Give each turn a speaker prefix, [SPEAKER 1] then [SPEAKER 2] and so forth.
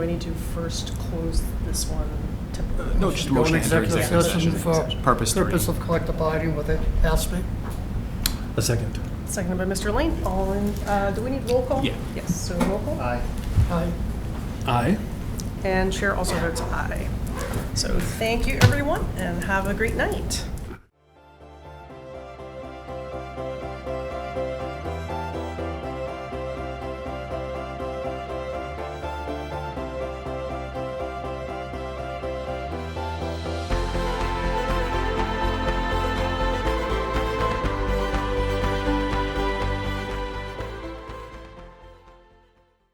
[SPEAKER 1] We need to first close this one to.
[SPEAKER 2] Uh, No, just a
[SPEAKER 3] Go
[SPEAKER 2] motion to
[SPEAKER 3] in
[SPEAKER 2] enter
[SPEAKER 3] executive
[SPEAKER 2] executive session.
[SPEAKER 3] session for
[SPEAKER 2] Purpose three.
[SPEAKER 3] Purpose of collective bargaining with ASME.
[SPEAKER 4] A second.
[SPEAKER 1] Seconded by Mr. Lane. All in, uh, do we need roll call?
[SPEAKER 2] Yeah.
[SPEAKER 1] Yes, so roll call.
[SPEAKER 3] Aye. Aye.
[SPEAKER 4] Aye.
[SPEAKER 1] And Chair also votes aye. So thank you, everyone, and have a great night.